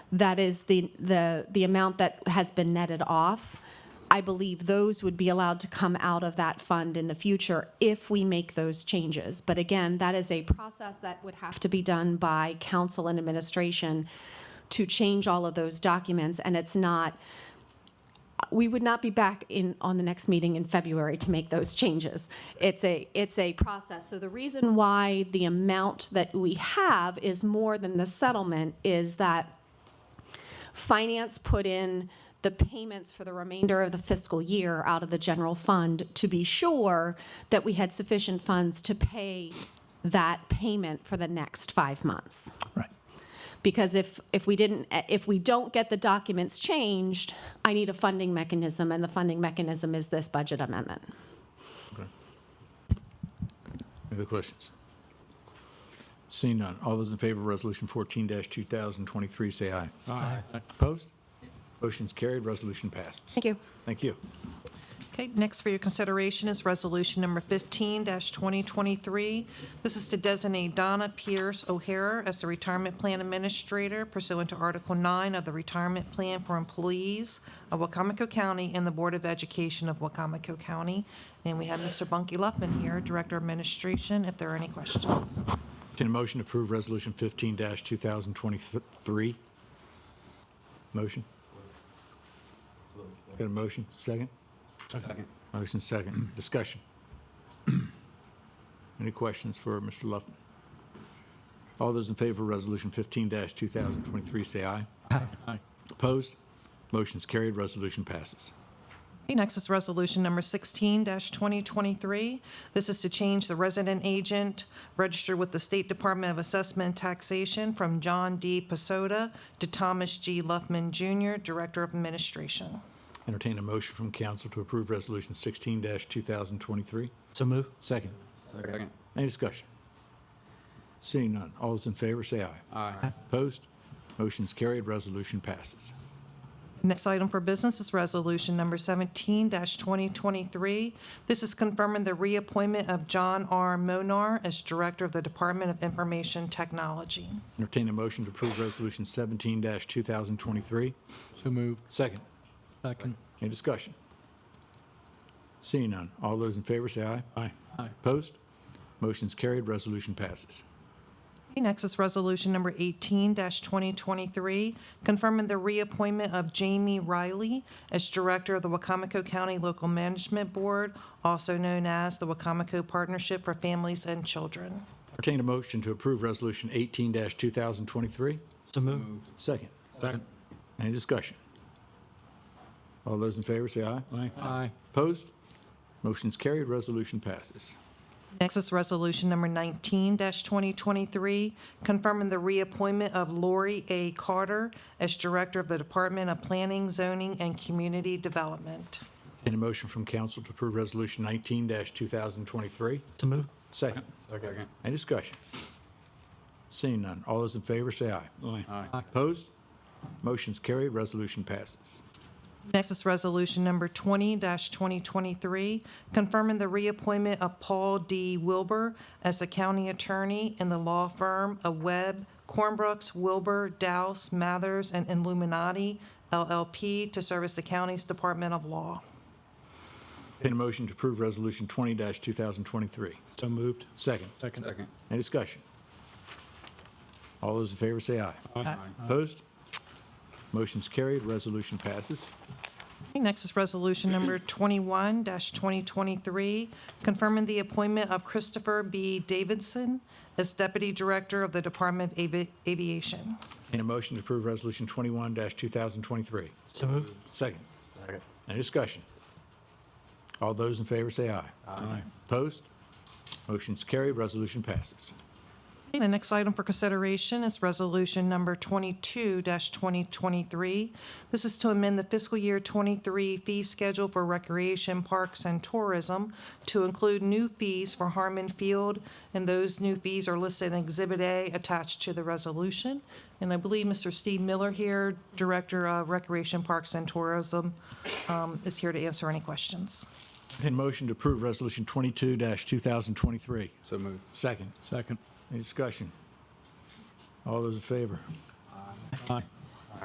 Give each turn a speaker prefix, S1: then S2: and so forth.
S1: that is the, the, the amount that has been netted off. I believe those would be allowed to come out of that fund in the future if we make those changes. But again, that is a process that would have to be done by council and administration to change all of those documents, and it's not, we would not be back in, on the next meeting in February to make those changes. It's a, it's a process. So the reason why the amount that we have is more than the settlement is that finance put in the payments for the remainder of the fiscal year out of the general fund to be sure that we had sufficient funds to pay that payment for the next five months
S2: Right.
S1: because if, if we didn't, if we don't get the documents changed, I need a funding mechanism, and the funding mechanism is this budget amendment.
S2: Any other questions? Seeing none. All those in favor of Resolution 14-2023, say aye. Aye. Opposed? Motion's carried, resolution passes.
S1: Thank you.
S2: Thank you.
S3: Okay, next for your consideration is Resolution Number 15-2023. This is to designate Donna Pierce O'Hara as the Retirement Plan Administrator pursuant to Article 9 of the Retirement Plan for Employees of Wacomico County and the Board of Education of Wacomico County. And we have Mr. Bunky Luppin here, Director of Administration, if there are any questions.
S2: Entertain a motion to approve Resolution 15-2023. Motion? Got a motion? Second?
S4: Second.
S2: Motion second. Discussion. Any questions for Mr. Luffman? All those in favor of Resolution 15-2023, say aye.
S4: Aye.
S2: Opposed? Motion's carried, resolution passes.
S3: Okay, Next is Resolution Number 16-2023. This is to change the resident agent registered with the State Department of Assessment and Taxation from John D. Pasoda to Thomas G. Luffman Jr., Director of Administration.
S2: Entertain a motion from council to approve Resolution 16-2023.
S4: So move.
S2: Second.
S4: Second.
S2: Any discussion? Seeing none, all those in favor, say aye.
S4: Aye.
S2: Opposed? Motion's carried, resolution passes.
S3: Next item for business is Resolution Number 17-2023. This is confirming the reappointment of John R. Monar as Director of the Department of Information Technology.
S2: Entertain a motion to approve Resolution 17-2023.
S4: So move.
S2: Second.
S4: Second.
S2: Any discussion? Seeing none, all those in favor, say aye. Aye.
S4: Aye.
S2: Opposed? Motion's carried, resolution passes.
S3: Okay, Next is Resolution Number 18-2023, confirming the reappointment of Jamie Riley as Director of the Wacomico County Local Management Board, also known as the Wacomico Partnership for Families and Children.
S2: Entertain a motion to approve Resolution 18-2023.
S4: So move.
S2: Second.
S4: Second.
S2: Any discussion? All those in favor, say aye.
S4: Aye. Aye.
S2: Opposed? Motion's carried, resolution passes.
S3: Next is Resolution Number 19-2023, confirming the reappointment of Lori A. Carter as Director of the Department of Planning, Zoning, and Community Development.
S2: Entertain a motion from council to approve Resolution 19-2023.
S4: So move.
S2: Second.
S4: Second.
S2: Any discussion? Seeing none, all those in favor, say aye.
S4: Aye. Aye.
S2: Opposed? Motion's carried, resolution passes.
S3: Next is Resolution Number 20-2023, confirming the reappointment of Paul D. Wilbur as the county attorney in the law firm of Webb, Cornbrooks, Wilbur, Douse, Mathers, and Illuminati LLP to serve as the county's Department of Law.
S2: Entertain a motion to approve Resolution 20-2023.
S4: So moved.
S2: Second.
S4: Second. Second.
S2: Any discussion? All those in favor, say aye. Opposed? Motion's carried, resolution passes.
S3: Okay, Next is Resolution Number 21-2023, confirming the appointment of Christopher B. Davidson as Deputy Director of the Department of Avi- Aviation.
S2: Entertain a motion to approve Resolution 21-2023.
S4: So move.
S2: Second. Any discussion? All those in favor say aye. Aye. Opposed? Motion's carried, resolution passes.
S3: Okay, The next item for consideration is Resolution Number 22-2023. This is to amend the fiscal year '23 fee schedule for recreation, parks, and tourism to include new fees for Harmon Field, and those new fees are listed in Exhibit A attached to the resolution. And I believe Mr. Steve Miller here, Director of Recreation, Parks, and Tourism, um, is here to answer any questions.
S2: Entertain a motion to approve Resolution 22-2023.
S4: So move.
S2: Second.
S4: Second.
S2: Any discussion? All those in favor?
S4: Aye.